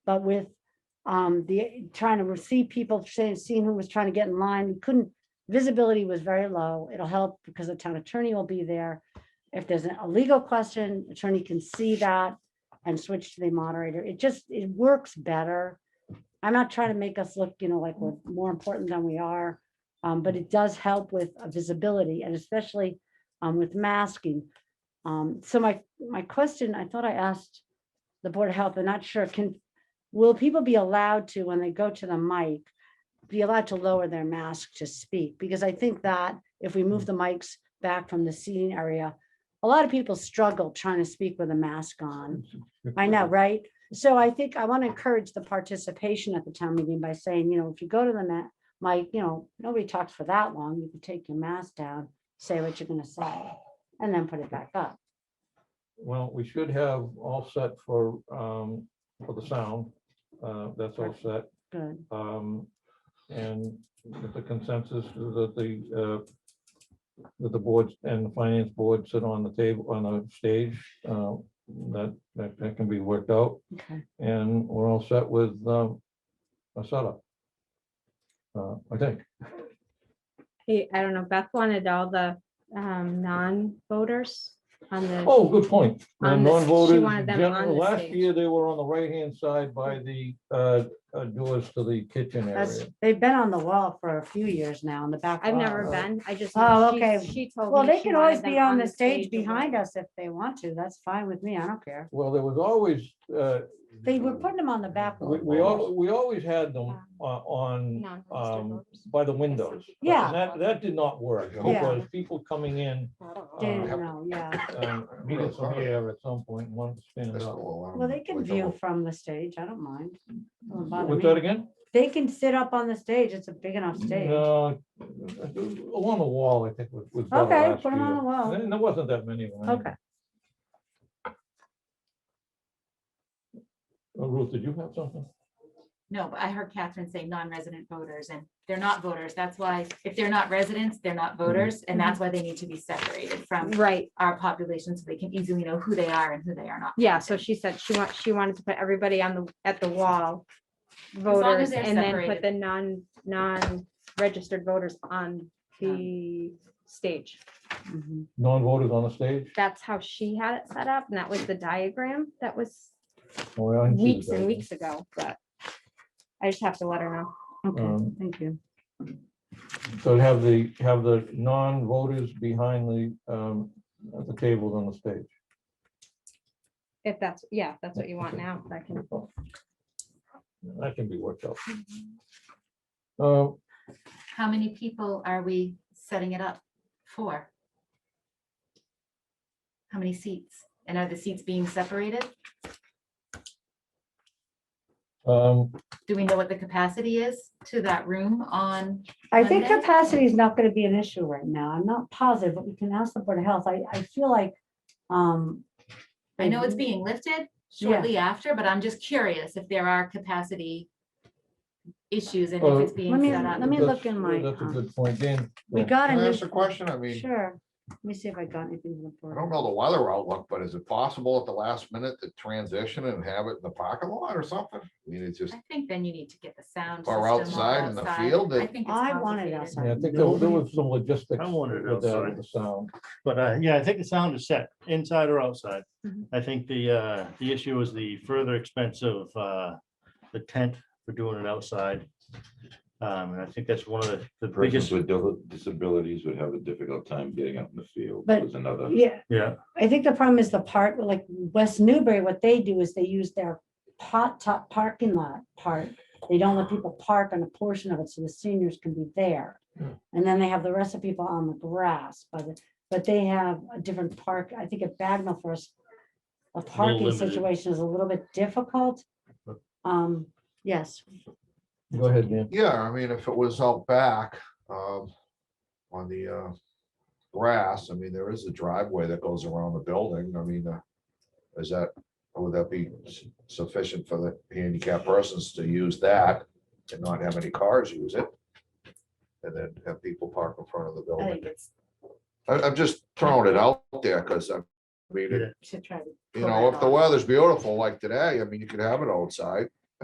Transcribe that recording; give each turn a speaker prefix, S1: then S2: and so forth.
S1: but with um, the, trying to see people, saying, seeing who was trying to get in line, we couldn't, visibility was very low. It'll help because the town attorney will be there. If there's a legal question, attorney can see that and switch to the moderator. It just, it works better. I'm not trying to make us look, you know, like we're more important than we are. Um, but it does help with uh, visibility and especially um, with masking. Um, so my, my question, I thought I asked the Board of Health, I'm not sure, can, will people be allowed to, when they go to the mic, be allowed to lower their mask to speak? Because I think that if we move the mics back from the seating area, a lot of people struggle trying to speak with a mask on. I know, right? So I think I want to encourage the participation at the town meeting by saying, you know, if you go to the ma- mic, you know, nobody talks for that long. You can take your mask down, say what you're gonna say, and then put it back up.
S2: Well, we should have all set for, um, for the sound. Uh, that's all set.
S1: Good.
S2: Um, and with the consensus is that the, uh, that the boards and the finance board sit on the table, on the stage, uh, that, that, that can be worked out.
S1: Okay.
S2: And we're all set with, um, a setup. Uh, I think.
S3: Hey, I don't know, Beth wanted all the um non-voters on the,
S2: Oh, good point. The
S3: On the- she
S2: non-voters,
S3: wanted them
S2: gen-
S3: on the
S2: last
S3: stage.
S2: year, they were on the right-hand side by the, uh, uh, doors to the kitchen
S1: That's,
S2: area.
S1: they've been on the wall for a few years now in the back.
S3: I've never
S1: wall.
S3: been, I just.
S1: Oh,
S3: she-
S1: okay.
S3: She told me.
S1: Well, they
S3: she
S1: can
S3: wanted
S1: always
S3: them
S1: be on the stage behind
S3: or-
S1: us if they want to. That's fine with me. I don't care.
S2: Well, there was always, uh,
S1: They were putting them on the back.
S2: we, we al- we always had them uh, on,
S3: Non-registered
S2: um,
S3: voters.
S2: by the windows.
S1: Yeah.
S2: And that, that did not work because people coming in,
S1: Didn't
S2: uh,
S1: know, yeah.
S2: um, needed some air at some point, and wanted to stand up.
S1: Well, they can view
S4: oh,
S1: from the stage. I don't mind. Doesn't bother
S2: What's
S1: me.
S2: that again?
S1: They can sit up on the stage. It's a big enough stage.
S2: No, along the wall, I think was. was better
S1: Okay,
S2: last
S1: put 'em on
S2: year.
S1: the wall.
S2: And there wasn't that many of them. anyway.
S1: Okay.
S2: Uh, Ruth, did you have something?
S5: No, but I heard Catherine say non-resident voters and they're not voters. That's why if they're not residents, they're not
S1: Mm-hmm.
S5: voters. And that's why they need to be separated from
S3: Right,
S5: our population so they can easily know who they are and who they are not.
S3: yeah, so she said she wants, she wanted to put everybody on the, at the wall.
S5: long
S3: Voters
S5: as they're
S3: and then put
S5: separated.
S3: the non, non-registered voters on
S1: Um.
S3: the stage.
S1: Mhm.
S2: Non-voters on the stage?
S3: That's how she had it set up and that was the diagram that was
S2: Oh, I didn't see the
S3: weeks and
S2: diagram.
S3: weeks ago, but I just have to let her know.
S2: Um,
S1: Okay, thank you.
S2: So have the, have the non-voters behind the, um, at the tables on the stage.
S3: If that's, yeah, if that's what you want now, I can.
S2: That can be worked out. Uh,
S5: How many people are we setting it up for? How many seats? And are the seats being separated?
S2: um,
S5: Do we know what the capacity is to that room on?
S1: I think
S5: Monday?
S1: capacity is not gonna be an issue right now. I'm not positive, but we can ask the Board of Health. I, I feel like, um.
S5: I know
S1: Mm-hmm.
S5: it's being lifted shortly after, but I'm just curious if there are capacity issues and
S2: Uh,
S5: if it's being
S1: Let me-
S5: set up.
S1: let me look
S2: that's-
S1: in my,
S2: That's a
S1: um,
S2: good point, Dan.
S1: We
S2: Yeah.
S1: got
S4: Can I ask
S1: it,
S4: a question? I mean,
S1: sure. Let me see if I got anything. from the
S4: I
S1: Board of
S4: don't know the weather outlook, but is it possible at the last minute to transition and have it in the parking lot or something? I mean, it's just,
S5: I think then you need to get the sound.
S4: Or
S5: system all
S4: outside in the
S5: outside.
S4: field,
S5: I
S4: it-
S5: think it's
S1: I wanted
S5: complicated.
S1: outside.
S2: Yeah, I think there was there was some logistics.
S6: I wanted
S2: with that,
S6: outside.
S2: The sound.
S6: But uh, yeah, I think the sound is set inside or outside.
S3: Mhm.
S6: I think the uh, the issue is the further expense of uh, the tent for doing it outside. Um, and I think that's one of the- the
S7: Persons
S6: biggest,
S7: with dil- disabilities would have a difficult time getting out in the field.
S1: But-
S7: Was another.
S1: Health. Yeah,
S6: yeah,
S1: I think the problem is the part, like West Newbury, what they do is they use their pot top parking lot part. They don't let people park on a portion of it, so the seniors can be there.
S2: Hmm.
S1: And then they have the rest of people on the grass, but, but they have a different park, I think at Bagnell first. The parking
S6: limited.
S1: situation is a little bit difficult. Um, yes,
S2: Go ahead, Dan.
S4: yeah, I mean, if it was out back, um, on the, uh, grass, I mean, there is a driveway that goes around the building. I mean, uh, is that, would that be s- sufficient for the handicapped persons to use that and not have any cars use it? And then have people park in front of the
S5: I
S4: building?
S5: think it's
S4: I, I'm just throwing it out there, cause I mean,
S6: Yeah.
S4: it-
S5: to try to.
S4: you
S5: pull
S4: know,
S5: that
S4: if the
S5: off.
S4: weather's beautiful like today, I mean, you could have it outside.